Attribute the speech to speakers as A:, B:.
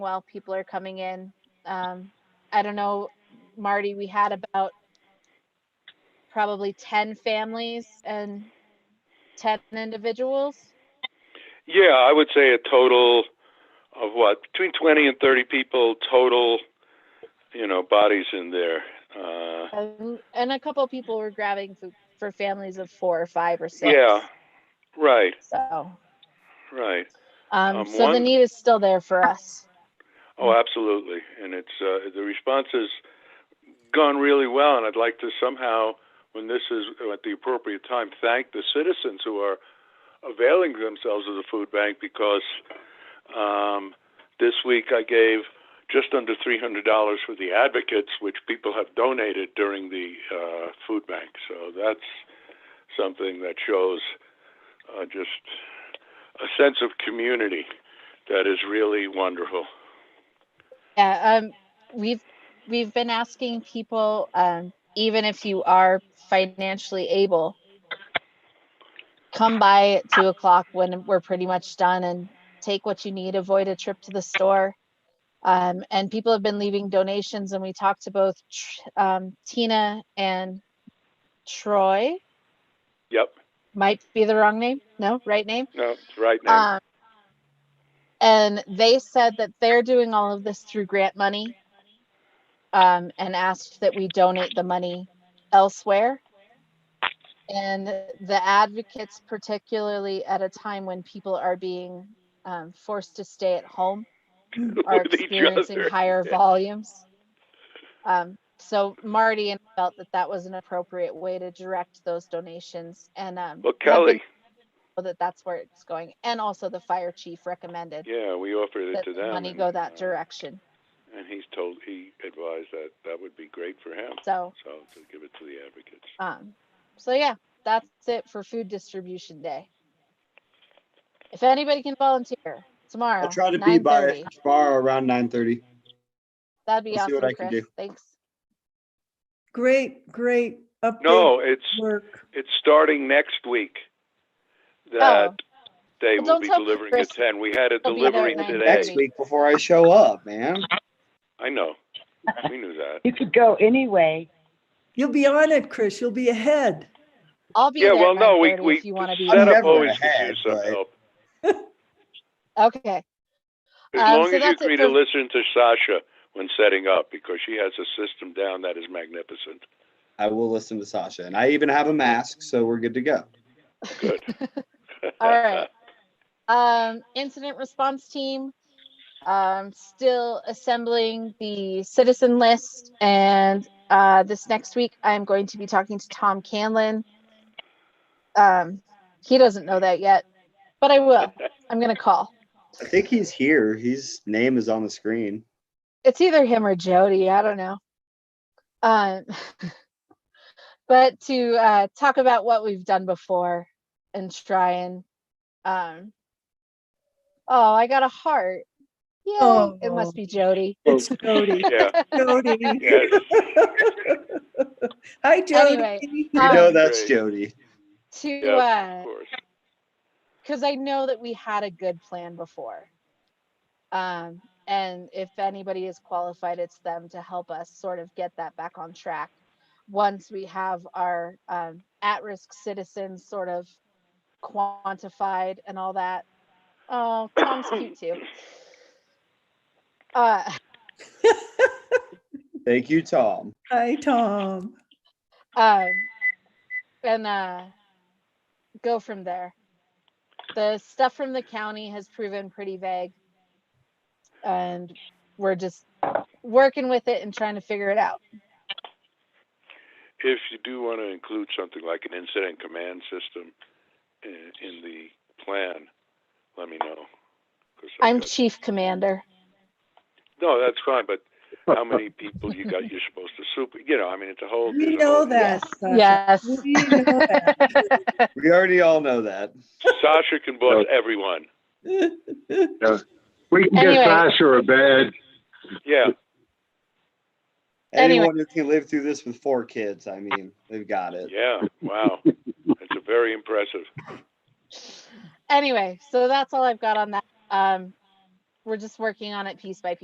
A: while people are coming in. Um, I don't know, Marty, we had about probably ten families and ten individuals.
B: Yeah, I would say a total of what between twenty and thirty people total. You know, bodies in there. Uh,
A: And, and a couple people were grabbing food for families of four or five or six.
B: yeah, right,
A: So,
B: right.
A: um,
B: Um,
A: so the
B: one-
A: need is still there for us.
B: Oh, absolutely. And it's uh, the response has gone really well, and I'd like to somehow, when this is at the appropriate time, thank the citizens who are availing themselves of the food bank because um, this week I gave just under three hundred dollars for the advocates, which people have donated during the uh, food bank. So that's something that shows uh, just a sense of community that is really wonderful.
A: Yeah, um, we've, we've been asking people, um, even if you are financially able, come by at two o'clock when we're pretty much done and take what you need, avoid a trip to the store. Um, and people have been leaving donations and we talked to both, Tr- um, Tina and Troy,
B: Yep.
A: might be the wrong name. No, right name.
B: No, it's right now.
A: Um, and they said that they're doing all of this through grant money um, and asked that we donate the money elsewhere. And the advocates, particularly at a time when people are being um, forced to stay at home, Um, are
B: With each
A: experiencing
B: other.
A: higher
B: Yeah.
A: volumes. Um, so Marty and I felt that that was an appropriate way to direct those donations and um.
B: Well,
A: have been
B: Kelly,
A: so that that's where it's going. And also the fire chief recommended
B: yeah, we offered it
A: that
B: to
A: the
B: them.
A: money
B: and,
A: go
B: uh,
A: that direction.
B: And he's told, he advised that that would be great for him,
A: So,
B: so to give it to the advocates.
A: um, so yeah, that's it for food distribution day. If anybody can volunteer tomorrow,
C: I'll try to be by
A: 9:30,
C: tomorrow around nine thirty.
A: that'd be
C: I'll see what
A: awesome,
C: I can
A: Chris.
C: do.
A: Thanks.
D: Great, great update.
B: No, it's,
D: Work.
B: it's starting next week that they
A: Oh. Well,
B: will
A: don't
B: be
A: tell
B: delivering
A: Chris
B: at ten. We had a
A: he'll be there at
B: delivery
A: 9:30.
B: today.
C: Next week before I show up, man.
B: I know. We knew that.
E: You could go anyway.
D: You'll be on it, Chris. You'll be ahead.
A: I'll be
B: Yeah,
A: there
B: well,
A: at
B: no, we,
A: 9:30
B: we,
A: if you want to be.
B: the setup
A: there.
C: never
B: always could
C: had,
B: use some
C: but-
B: help.
A: Okay, Um,
B: As long
A: so
B: as you
A: that's it
B: agree to
A: for-
B: listen to Sasha when setting up, because she has a system down that is magnificent.
C: I will listen to Sasha, and I even have a mask, so we're good to go.
B: Good.
A: all right. Um, incident response team, um, still assembling the citizen list. And, uh, this next week, I'm going to be talking to Tom Canlin. Um, he doesn't know that yet, but I will. I'm gonna call.
C: I think he's here. His name is on the screen.
A: It's either him or Jody, I don't know. Um, but to, uh, talk about what we've done before and try and, um, oh, I got a heart. Yeah, it
D: Oh.
A: must be Jody.
D: It's Jody,
B: uh, Yeah,
D: Jody.
B: yes.
D: Hi, Jody.
A: Anyway.
C: You
D: Oh.
C: know
A: Um,
C: that's
B: Great.
C: Jody.
A: to
B: Yeah,
A: uh
B: Of course.
A: because i know that we had a good plan before um and if anybody is qualified it's them to help us sort of get that back on track once we have our um, at-risk citizens sort of quantified and all that oh tom's cute too uh
C: Thank you, Tom.
D: Hi, Tom.
A: um and uh go from there the stuff from the county has proven pretty vague and we're just working with it and trying to figure it out
B: if you do want to include something like an incident command system in, in the plan, let me know. 'Cause I've
A: i'm
B: got-
A: chief commander
B: no, that's fine, but how many people you got? You're supposed to super. You know, I mean, it's a whole.
D: We
B: there's a
D: know
B: whole-
D: that. Sasha.
A: yes
D: We know that.
C: We already all know that.
B: Sasha can boss everyone.
F: We can
A: Anyway.
F: get Sasha a bed.
B: Yeah,
A: Anyway.
C: Anyone who can live through this with four kids, I mean, they've got it.
B: yeah. Wow, that's a very impressive.
A: anyway so that's all i've got on that um we're just working on it piece by piece.